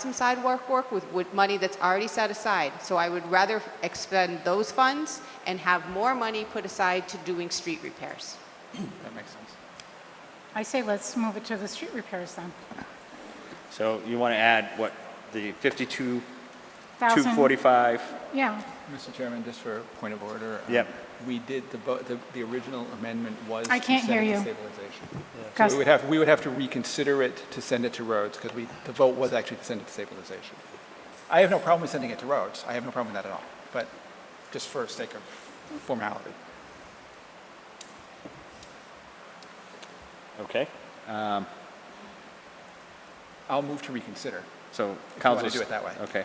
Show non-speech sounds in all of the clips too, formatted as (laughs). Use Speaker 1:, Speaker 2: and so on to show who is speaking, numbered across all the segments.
Speaker 1: some sidewalk work with, with money that's already set aside. So I would rather expend those funds and have more money put aside to doing street repairs.
Speaker 2: That makes sense.
Speaker 3: I say let's move it to the street repairs then.
Speaker 4: So you want to add what, the 52,
Speaker 3: Thousand-
Speaker 4: 245?
Speaker 3: Yeah,
Speaker 2: Mr. Chairman, just for a point of order. um,
Speaker 4: Yep.
Speaker 2: We did, the vote, the, the original amendment was.
Speaker 3: I
Speaker 2: to
Speaker 3: can't
Speaker 2: send
Speaker 3: hear
Speaker 2: it to
Speaker 3: you.
Speaker 2: Stabilization. So
Speaker 3: Gus,
Speaker 2: we would have, we would have to reconsider it to send it to roads because we, the vote was actually to send it to stabilization. I have no problem with sending it to roads. I have no problem with that at all. But just for sake of formality.
Speaker 4: Okay,
Speaker 2: I'll move to reconsider.
Speaker 4: so
Speaker 2: If you wanna
Speaker 4: Council...
Speaker 2: do it that way.
Speaker 4: Okay.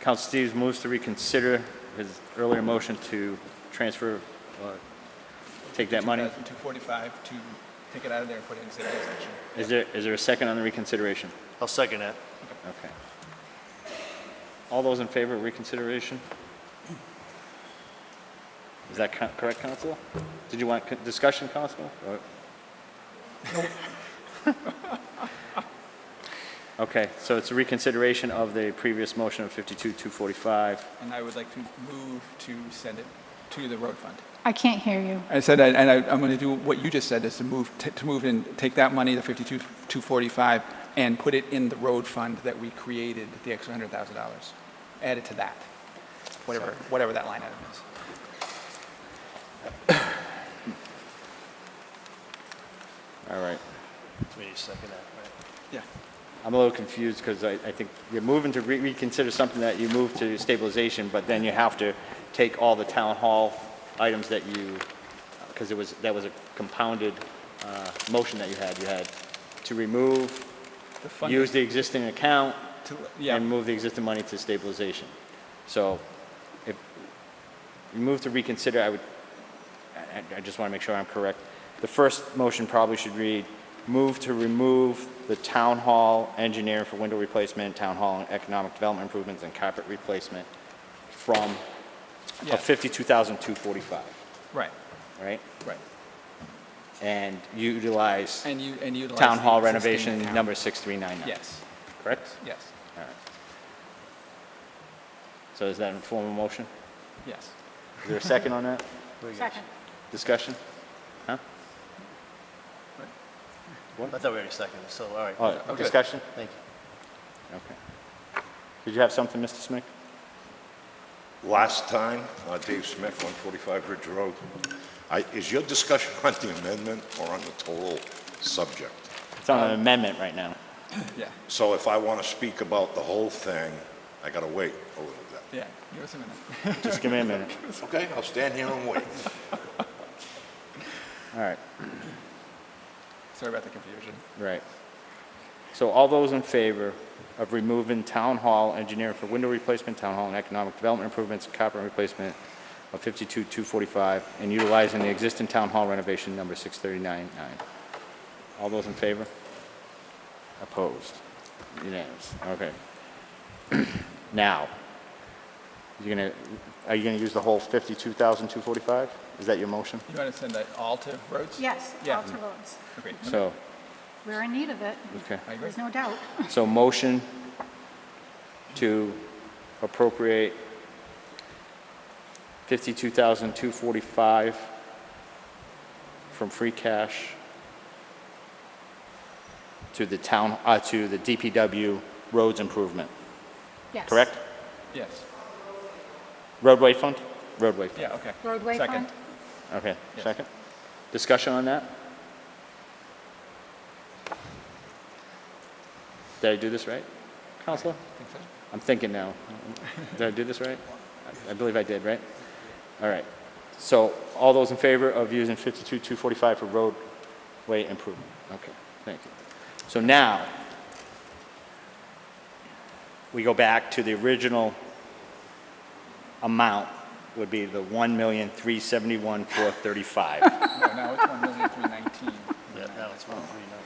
Speaker 4: Council Steves moves to reconsider his earlier motion to transfer, uh, take that money.
Speaker 2: 245 to take it out of there and put it in stabilization.
Speaker 4: Is there, is there a second on the reconsideration?
Speaker 5: I'll second that.
Speaker 4: Okay. All those in favor of reconsideration? Is that co- correct, Council? Did you want co- discussion, Council? Or- (laughs) Okay, so it's a reconsideration of the previous motion of 52-245.
Speaker 2: And I would like to move to send it to the road fund.
Speaker 3: I can't hear you.
Speaker 2: I said, and I, I'm going to do what you just said, is to move, t- to move in, take that money, the 52, 245, and put it in the road fund that we created, the extra $100,000. Add it to that, whatever, whatever that line item is.
Speaker 4: All right.
Speaker 5: We need to second that,
Speaker 2: Yeah.
Speaker 4: I'm a little confused because I, I think you're moving to re- reconsider something that you moved to stabilization, but then you have to take all the town hall items that you, because it was, that was a compounded uh, motion that you had. You had to remove,
Speaker 2: The funding-
Speaker 4: use the existing account,
Speaker 2: to- Yeah,
Speaker 4: and move the existing money to stabilization. So if you move to reconsider, I would, I- I- I just want to make sure I'm correct. The first motion probably should read, move to remove the town hall engineer for window replacement, town hall and economic development improvements, and carpet replacement from
Speaker 2: Yeah.
Speaker 4: a 52,245,
Speaker 2: right,
Speaker 4: right?
Speaker 2: right.
Speaker 4: And utilize
Speaker 2: And you, and utilize.
Speaker 4: town
Speaker 2: the
Speaker 4: hall
Speaker 2: existing
Speaker 4: renovation
Speaker 2: account.
Speaker 4: number 6399.
Speaker 2: Yes,
Speaker 4: Correct?
Speaker 2: yes,
Speaker 4: All right. So is that in form of motion?
Speaker 2: yes.
Speaker 4: Is there a second on that?
Speaker 5: right?
Speaker 3: Second.
Speaker 4: Discussion? Huh?
Speaker 5: I thought we already seconded, so, all right.
Speaker 4: Oh, discussion?
Speaker 5: Thank you.
Speaker 4: Okay. Did you have something, Mr. Smick?
Speaker 6: Last time, uh, Dave Smith, 145 Ridge Road. I- Is your discussion (laughs) on the amendment or on the total subject?
Speaker 4: It's on an amendment right now.
Speaker 2: Yeah,
Speaker 6: So if I want to speak about the whole thing, I got to wait a little bit.
Speaker 2: yeah. Give us a minute.
Speaker 4: Just give me a minute.
Speaker 6: Okay, I'll stand here and wait.
Speaker 4: All right,
Speaker 2: (laughs) Sorry about the confusion.
Speaker 4: right. So all those in favor of removing town hall engineering for window replacement, town hall and economic development improvements, copper replacement of 52,245, and utilizing the existing town hall renovation number 6399. All those in favor? Opposed? Unanimous, okay. (clears throat) Now, you're gonna, are you gonna use the whole 52,245? Is that your motion?
Speaker 2: You want to send that all to roads?
Speaker 3: Yes,
Speaker 2: Yeah.
Speaker 3: all to roads.
Speaker 2: Agreed.
Speaker 4: So,
Speaker 3: We're in need of it.
Speaker 4: okay.
Speaker 2: I agree.
Speaker 3: There's no doubt. (laughs)
Speaker 4: So motion to appropriate 52,245 from free cash to the town, uh, to the DPW roads improvement,
Speaker 3: Yes.
Speaker 4: correct?
Speaker 2: Yes,
Speaker 4: Roadway fund? Roadway fund.
Speaker 2: yeah, okay.
Speaker 3: Roadway
Speaker 2: Second.
Speaker 3: fund?
Speaker 4: Okay,
Speaker 2: Yes.
Speaker 4: second. Discussion on that? Did I do this right, Counselor?
Speaker 2: Think so?
Speaker 4: I'm thinking now. Did I do this right? I- I believe I did, right? All right. So all those in favor of using 52-245 for roadway improvement? Okay, thank you. So now, we go back to the original amount would be the 1,371,435.
Speaker 2: No, now it's
Speaker 4: (laughs)
Speaker 2: 1,319.
Speaker 5: Yeah, now it's one, three, nine.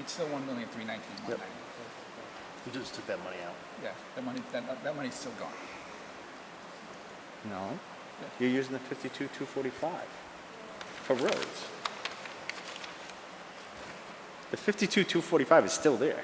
Speaker 2: It's still one million three nineteen one ninety.
Speaker 5: We just took that money out.
Speaker 2: Yeah, that money, that, that money's still gone.
Speaker 4: No, you're using the 52-245 for roads. The 52, 245 is still there.